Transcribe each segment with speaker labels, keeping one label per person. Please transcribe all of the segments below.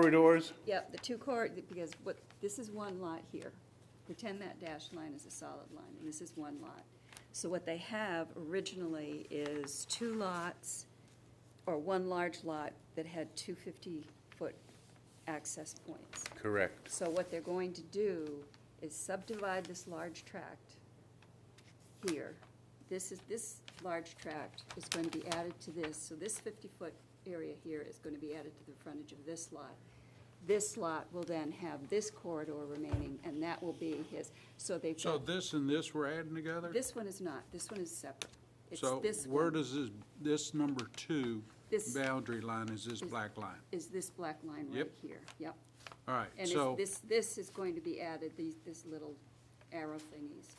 Speaker 1: corridors?
Speaker 2: Yep, the two car, because what, this is one lot here. Pretend that dashed line is a solid line, and this is one lot. So what they have originally is two lots, or one large lot that had two 50-foot access points.
Speaker 1: Correct.
Speaker 2: So what they're going to do is subdivide this large tract here. This is, this large tract is going to be added to this, so this fifty-foot area here is going to be added to the frontage of this lot. This lot will then have this corridor remaining, and that will be his, so they've
Speaker 3: So
Speaker 2: got,
Speaker 3: this and this we're adding together?
Speaker 2: this one is not, this one is separate. It's
Speaker 3: So
Speaker 2: this
Speaker 3: where
Speaker 2: one
Speaker 3: does this, this number two
Speaker 2: This-
Speaker 3: boundary line is this black line?
Speaker 2: Is this black line right
Speaker 3: Yep.
Speaker 2: here, yep.
Speaker 3: All right,
Speaker 2: And it's-
Speaker 3: so,
Speaker 2: this, this is going to be added, these, this little arrow thingies.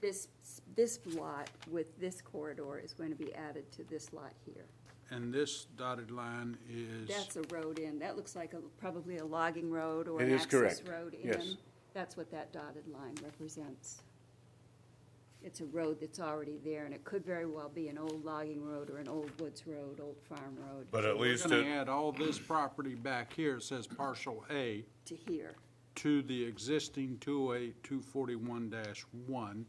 Speaker 2: This, this lot with this corridor is going to be added to this lot here.
Speaker 3: and this dotted line is,
Speaker 2: That's a road in, that looks like a, probably a logging road or
Speaker 1: It
Speaker 2: an
Speaker 1: is
Speaker 2: access
Speaker 1: correct,
Speaker 2: road in.
Speaker 1: yes.
Speaker 2: That's what that dotted line represents. It's a road that's already there, and it could very well be an old logging road or an old woods road, old farm road.
Speaker 1: uh,
Speaker 4: But at
Speaker 3: we're
Speaker 4: least
Speaker 3: gonna
Speaker 4: it,
Speaker 3: add all this property back here, it says partial A,
Speaker 2: To here,
Speaker 3: to the existing 208-241-1.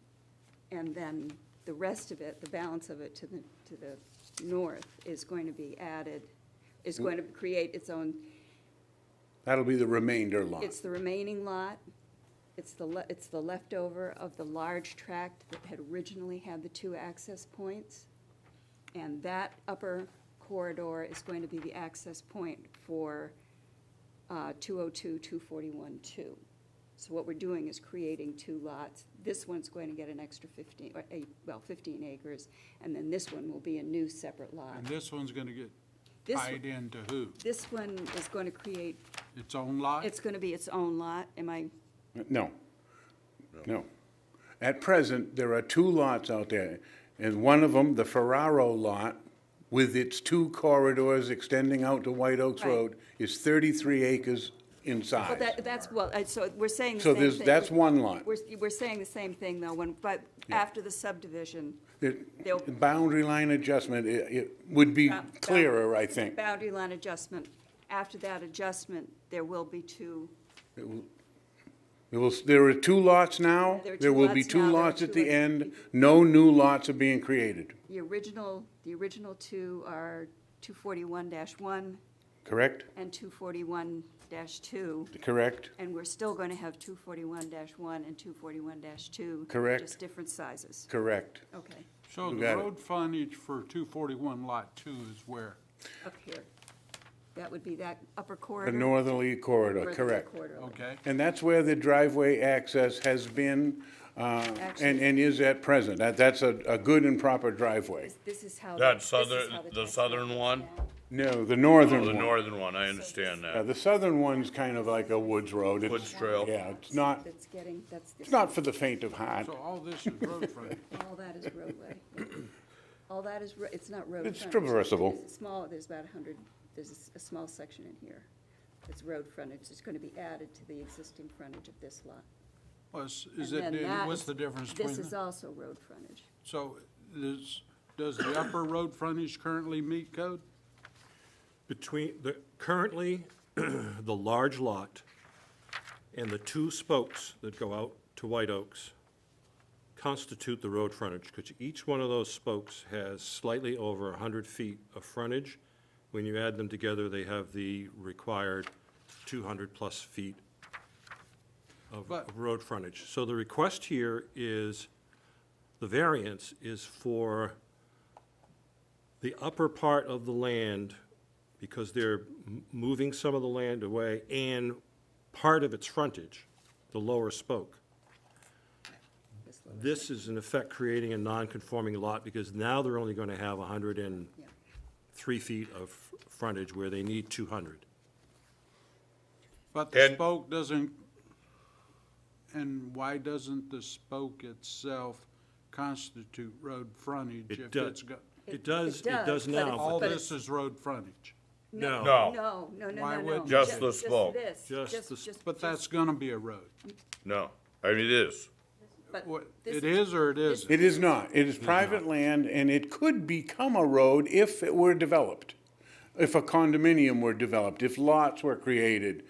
Speaker 2: and then the rest of it, the balance of it to the, to the north is going to be added, is going to create its own,
Speaker 1: That'll be the remainder lot.
Speaker 2: it's the remaining lot, it's the, le- it's the leftover of the large tract that had originally had the two access points. And that upper corridor is going to be the access point for uh, 202, 241, 2. So what we're doing is creating two lots. This one's going to get an extra 15, or eight, well, 15 acres, and then this one will be a new separate lot.
Speaker 3: And this one's gonna get
Speaker 2: This-
Speaker 3: tied into who?
Speaker 2: This one is going to create,
Speaker 3: Its own lot?
Speaker 2: it's going to be its own lot, am I,
Speaker 1: No, no. At present, there are two lots out there, and one of them, the Ferraro lot, with its two corridors extending out to White Oaks
Speaker 2: Right.
Speaker 1: Road, is thirty-three acres in
Speaker 2: well,
Speaker 1: size.
Speaker 2: that, that's, well, uh, so we're saying the
Speaker 1: So
Speaker 2: same
Speaker 1: there's,
Speaker 2: thing.
Speaker 1: that's one lot.
Speaker 2: We're, we're saying the same thing, though, when, but after the subdivision,
Speaker 1: The
Speaker 2: They'll-
Speaker 1: the boundary line adjustment, it, it would be
Speaker 2: Ba- ba-
Speaker 1: clearer, I think.
Speaker 2: boundary line adjustment, after that adjustment, there will be two,
Speaker 1: There will, there are two lots now,
Speaker 2: There are
Speaker 1: there
Speaker 2: two
Speaker 1: will be
Speaker 2: lots now,
Speaker 1: two
Speaker 2: there are
Speaker 1: lots at
Speaker 2: two
Speaker 1: the
Speaker 2: lots.
Speaker 1: end, no new lots are being created,
Speaker 2: the original, the original two are two forty-one one
Speaker 1: correct?
Speaker 2: and two forty-one two,
Speaker 1: Correct?
Speaker 2: and we're still gonna have two forty-one one and two forty-one two.
Speaker 1: Correct.
Speaker 2: Just different sizes,
Speaker 1: Correct.
Speaker 2: okay,
Speaker 3: So
Speaker 1: You
Speaker 3: the
Speaker 1: got it.
Speaker 3: road frontage for 241 Lot 2 is where?
Speaker 2: up here. That would be that upper
Speaker 1: The
Speaker 2: corridor.
Speaker 1: northerly corridor,
Speaker 2: or the
Speaker 1: correct.
Speaker 2: corridor.
Speaker 3: Okay,
Speaker 1: And that's where the driveway access has been, uh, and,
Speaker 2: Actually-
Speaker 1: and is at present. That, that's a, a good and proper driveway.
Speaker 2: This- This is how. the-
Speaker 4: that
Speaker 2: this is
Speaker 4: southern,
Speaker 2: how
Speaker 4: the
Speaker 2: tax-
Speaker 4: southern one?
Speaker 1: No, the
Speaker 4: Oh, the
Speaker 1: northern one.
Speaker 4: northern one, I understand
Speaker 1: Yeah,
Speaker 4: that.
Speaker 1: the southern one's kind of like a woods road. It's-
Speaker 4: Woods Trail.
Speaker 1: Yeah, it's not,
Speaker 2: That's getting, that's.
Speaker 1: it's not for the faint of heart.
Speaker 3: so all this is road frontage.
Speaker 2: All that is roadway. All that is, ro- it's not road.
Speaker 1: It's
Speaker 2: frontage.
Speaker 1: traversable.
Speaker 2: There's a Small, there's about a hundred, there's a s- a small section in here. It's road frontage, it's gonna be added to the existing frontage of this lot.
Speaker 3: Plus, is
Speaker 2: And
Speaker 3: it,
Speaker 2: then that
Speaker 3: what's
Speaker 2: is-
Speaker 3: the difference between?
Speaker 2: This is
Speaker 3: the-
Speaker 2: also road frontage.
Speaker 3: So is, does the upper road frontage currently meet code?
Speaker 5: Between, the, currently, the large lot and the two spokes that go out to White Oaks constitute the road frontage, because each one of those spokes has slightly over hundred feet of frontage. When you add them together, they have the required two hundred plus feet of
Speaker 3: But-
Speaker 5: of road frontage. So the request here is, the variance is for the upper part of the land, because they're m- moving some of the land away, and part of its frontage, the lower spoke. This is in effect creating a non-conforming lot, because now they're only gonna have hundred and three feet of frontage where they need two hundred.
Speaker 3: But the
Speaker 4: And-
Speaker 3: spoke doesn't, and why doesn't the spoke itself constitute road frontage?
Speaker 5: It
Speaker 3: if
Speaker 5: does- Oh,
Speaker 3: it's got-
Speaker 5: It does, it
Speaker 2: does,
Speaker 5: does
Speaker 2: but it's-
Speaker 5: now,
Speaker 3: All
Speaker 2: but
Speaker 3: this is road frontage,
Speaker 5: no.
Speaker 4: No.
Speaker 2: No, no, no, no,
Speaker 3: Why
Speaker 2: no.
Speaker 3: would-
Speaker 4: Oh. Just
Speaker 2: Ju-
Speaker 4: the smoke.
Speaker 2: this,
Speaker 5: Just the s-
Speaker 3: but
Speaker 2: just-
Speaker 3: that's gonna be a road.
Speaker 4: No, I mean, it is.
Speaker 2: but
Speaker 3: What-
Speaker 2: this-
Speaker 3: It is or it isn't?
Speaker 1: It is not. It is private land, and it could become a road if it were developed. if a condominium were developed, if lots were created,